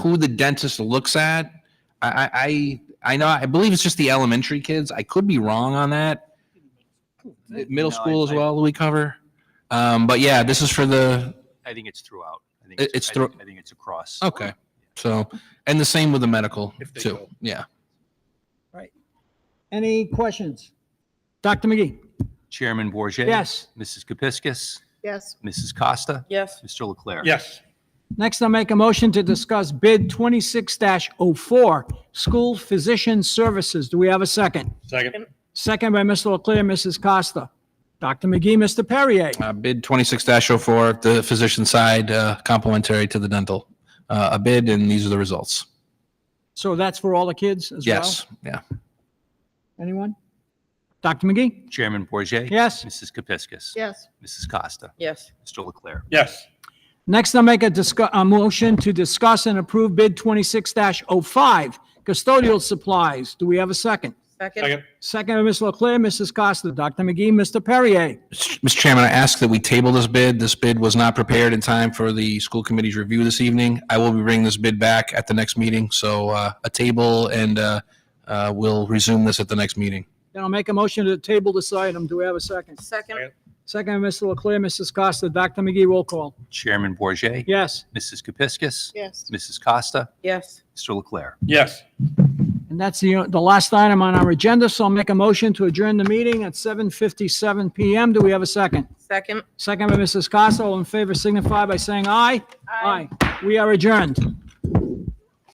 who the dentist looks at. I, I, I I know, I believe it's just the elementary kids. I could be wrong on that. Middle No, I- school as I- well, we cover. Um, but yeah, this is for the, I think it's throughout. I think It- it's, it's I thro- think- I think it's across. okay. So, and the same with the medical If they too. go. Yeah. Any questions? Dr. McGee? Chairman Bourget, Yes. Mrs. Kepiscus. Yes. Mrs. Costa. Yes. Mr. Leclerc. Yes. Next, I'll make a motion to discuss bid 26-04, school physician services. Do we have a second? Second. Second by Mr. Leclerc, Mrs. Costa. Dr. McGee, Mr. Perrier. Uh, bid twenty-six 4 the physician side, uh, complimentary to the dental, uh, a bid, and these are the results. So that's for all the kids as well? Yes. Yeah. Anyone? Dr. McGee? Chairman Bourget, Yes. Mrs. Kepiscus. Yes. Mrs. Costa. Yes. Mr. Leclerc. Yes. Next, I'll make a discuss, a motion to discuss and approve bid 26-05, custodial supplies. Do we have a second? Second. Second. Second by Mr. Leclerc, Mrs. Costa. Dr. McGee, Mr. Perrier. Mr. Chairman, I ask that we table this bid. This bid was not prepared in time for the school committee's review this evening. I will be bringing this bid back at the next meeting, so uh, a table, and uh, uh, we'll resume this at the next meeting. Then I'll make a motion to table this item. Do we have a second? Second. Second by Mr. Leclerc, Mrs. Costa. Dr. McGee, roll call. Chairman Bourget, Yes. Mrs. Kepiscus. Yes. Mrs. Costa. Yes. Mr. Leclerc. Yes. And that's the, the last item on our agenda, so I'll make a motion to adjourn the meeting at 7:57 PM. Do we have a second? Second. Second by Mrs. Costa. All in favor signify by saying aye. Aye. We are adjourned.